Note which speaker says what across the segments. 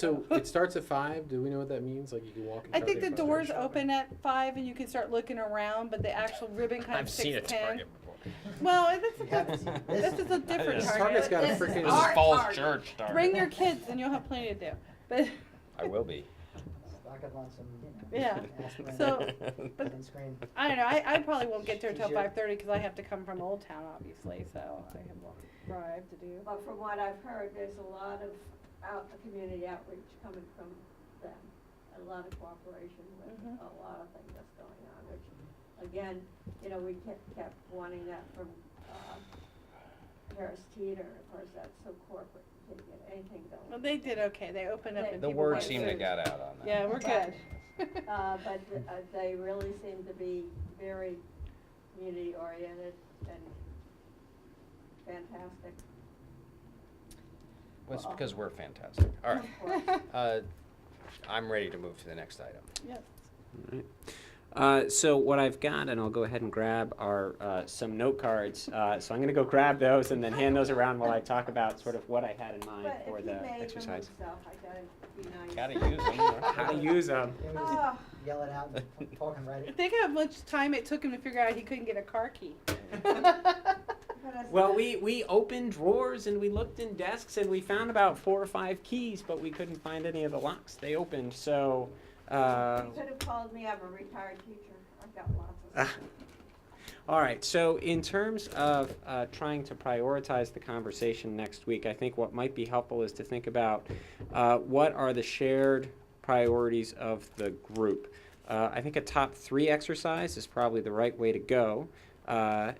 Speaker 1: So it starts at five. Do we know what that means? Like you can walk. in
Speaker 2: I think
Speaker 1: Target
Speaker 2: the
Speaker 1: by
Speaker 2: doors
Speaker 1: five?
Speaker 2: open at five and you can start looking around, but the actual ribbon kind
Speaker 3: I've
Speaker 2: of
Speaker 3: seen a
Speaker 2: six ten.
Speaker 3: target before.
Speaker 2: Well, that's, that's, this is a different
Speaker 3: This
Speaker 1: Target's
Speaker 2: target.
Speaker 1: got a
Speaker 2: This is
Speaker 1: freaking-
Speaker 3: This is
Speaker 2: our
Speaker 3: Falls
Speaker 2: target.
Speaker 3: Church. Darn.
Speaker 2: Bring your kids and you'll have plenty to do. But,
Speaker 3: I will be.
Speaker 4: Stock up on some, you know.
Speaker 2: Yeah.
Speaker 4: aspirin
Speaker 2: So- but-
Speaker 4: And screen.
Speaker 2: I don't know, I, I probably won't get there till
Speaker 4: Did you-
Speaker 2: five thirty, cause I have to come from Old Town, obviously, so I have a long drive to do.
Speaker 5: But from what I've heard, there's a lot of out, community outreach coming from them, a lot of cooperation with
Speaker 2: Mhm.
Speaker 5: a lot of things that's going on, which, again, you know, we kept, kept wanting that from, uh, Harris Teeter, of course, that's so corporate, you can't get anything
Speaker 2: Well,
Speaker 5: going.
Speaker 2: they did okay, they opened up
Speaker 5: The
Speaker 2: and
Speaker 3: The
Speaker 2: people
Speaker 3: word
Speaker 2: went
Speaker 3: seemed to
Speaker 2: through.
Speaker 3: got out on that.
Speaker 2: Yeah, we're good.
Speaker 5: Uh, but, uh, they really seem to be very community oriented and fantastic.
Speaker 3: Well, it's because we're fantastic. All right. Uh, I'm ready to move to the next item.
Speaker 2: Yep.
Speaker 6: Alright. Uh, so what I've got, and I'll go ahead and grab, are uh, some note cards. Uh, so I'm going to go grab those and then hand those around while I talk about sort of what I had in mind
Speaker 5: But if
Speaker 6: for
Speaker 5: he
Speaker 6: the
Speaker 5: made them
Speaker 6: exercise.
Speaker 5: himself, I gotta be nice.
Speaker 3: Gotta use them.
Speaker 6: How to use them.
Speaker 4: Can we just
Speaker 5: Ah.
Speaker 4: yell it out and talk and write it?
Speaker 2: Think how much time it took him to figure out he couldn't get a car key.
Speaker 5: But it's-
Speaker 6: Well, we, we opened drawers and we looked in desks and we found about four or five keys, but we couldn't find any of the locks they opened. So, uh,
Speaker 5: You could have called me, I'm a retired teacher, I've got lots
Speaker 6: Ah,
Speaker 5: of. stuff.
Speaker 6: All right, so in terms of uh, trying to prioritize the conversation next week, I think what might be helpful is to think about uh, what are the shared priorities of the group. Uh, I think a top three exercise is probably the right way to go. Uh,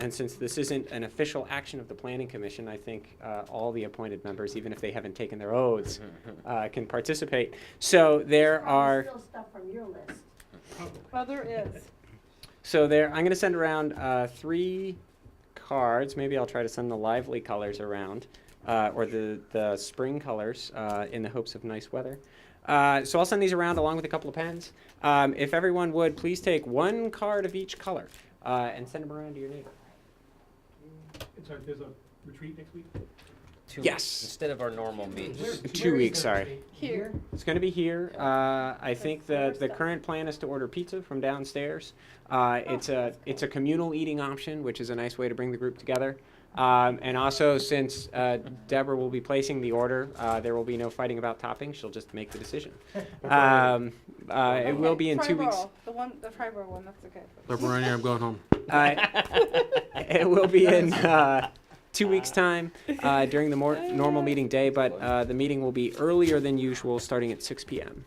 Speaker 6: and since this isn't an official action of the Planning Commission, I think uh, all the appointed members, even if they haven't taken their oaths, uh, can participate. So there
Speaker 5: Probably
Speaker 6: are.
Speaker 5: Still stuff from your list.
Speaker 2: Well, there is.
Speaker 6: So there, I'm gonna send around uh, three cards. Maybe I'll try to send the lively colors around, uh, or the the spring colors, uh, in the hopes of nice weather. Uh, so I'll send these around along with a couple of pens. Um, if everyone would please take one card of each color uh, and send them around to your neighbor.
Speaker 7: And so there's a retreat next week?
Speaker 3: Two
Speaker 6: Yes.
Speaker 3: weeks Instead of our normal meetings.
Speaker 6: Two
Speaker 4: Where is
Speaker 6: weeks,
Speaker 4: the
Speaker 6: sorry.
Speaker 4: retreat?
Speaker 2: Here.
Speaker 6: It's going to be here. Uh, I think
Speaker 2: That's
Speaker 6: the, the
Speaker 2: first.
Speaker 6: current plan is to order pizza from downstairs. Uh, it's a it's a communal eating option, which is a nice way to bring the group together. Um, and also, since uh, Deborah will be placing the order, uh, there will be no fighting about toppings. She'll just make the decision. Um, uh, it will be in two weeks.
Speaker 2: Triborough, The one, the Triborough one, that's okay.
Speaker 1: Pepperoni, I'm going home.
Speaker 6: Uh, it will be in uh, two weeks' time uh, during the more normal meeting day, but uh, the meeting will be earlier than usual, starting at 6 p.m.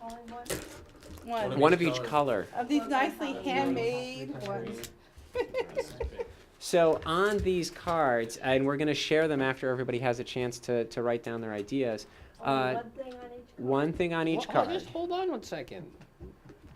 Speaker 5: Only one,
Speaker 2: One.
Speaker 6: One of each color.
Speaker 2: Of these nicely handmade ones.
Speaker 6: So on these cards, and we're going to share them after everybody has a chance to, to write down their ideas.
Speaker 5: only
Speaker 6: Uh,
Speaker 5: one thing on each.
Speaker 6: one thing on each
Speaker 3: Hold on,
Speaker 6: card.
Speaker 3: Just hold on one second.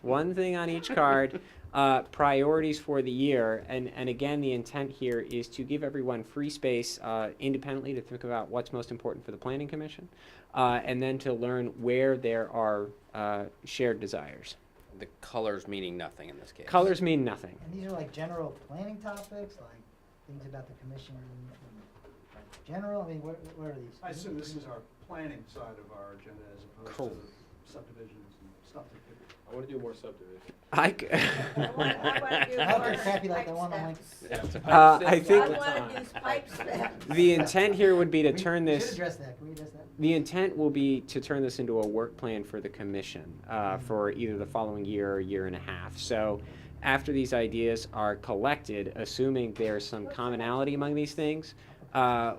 Speaker 6: One thing on each card. Uh, priorities for the year, and and again, the intent here is to give everyone free space uh, independently to think about what's most important for the planning commission, uh, and then to learn where there are uh, shared desires.
Speaker 3: The colors meaning nothing in this case.
Speaker 6: Colors mean nothing.
Speaker 4: And these are like general planning topics, like things about the commission, and, like, general, I mean, what, what are these?
Speaker 8: I assume this is our planning side of our agenda as opposed
Speaker 3: Cool.
Speaker 8: to the subdivisions and stuff that people
Speaker 1: I want to do more subdivision.
Speaker 6: I c-
Speaker 5: I want, I want to do.
Speaker 4: I hope
Speaker 5: more
Speaker 4: they're crappy like the
Speaker 5: pipe
Speaker 4: one on like.
Speaker 5: steps.
Speaker 6: Uh, I
Speaker 5: I
Speaker 6: think-
Speaker 5: want to do pipe steps.
Speaker 6: the intent here would be to
Speaker 4: We-
Speaker 6: turn
Speaker 4: we
Speaker 6: this.
Speaker 4: should address that, can we address that?
Speaker 6: The intent will be to turn this into a work plan for the commission uh, for either the following year or year and a half. So after these ideas are collected, assuming there's some commonality among these things, uh,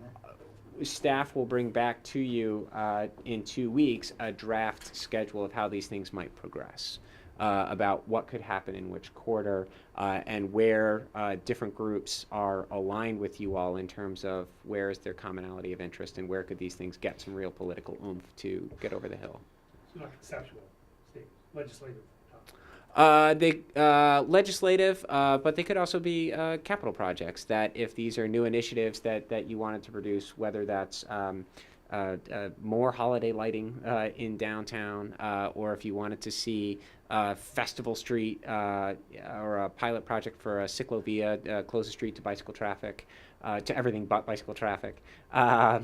Speaker 6: staff will bring back to you uh, in two weeks a draft schedule of how these things might progress. Uh, about what could happen in which quarter uh, and where uh, different groups are aligned with you all in terms of where is their commonality of interest and where could these things get some real political oomph to get over the hill.
Speaker 7: It's not conceptual, state legislative topic.
Speaker 6: Uh, they uh, legislative, uh, but they could also be uh, capital projects. That if these are new initiatives that that you wanted to produce, whether that's um, uh, uh, more holiday lighting uh, in downtown, uh, or if you wanted to see uh, Festival Street uh, or a pilot project for a Ciclovia uh, close the street to bicycle traffic. uh, to everything but bicycle traffic. Um,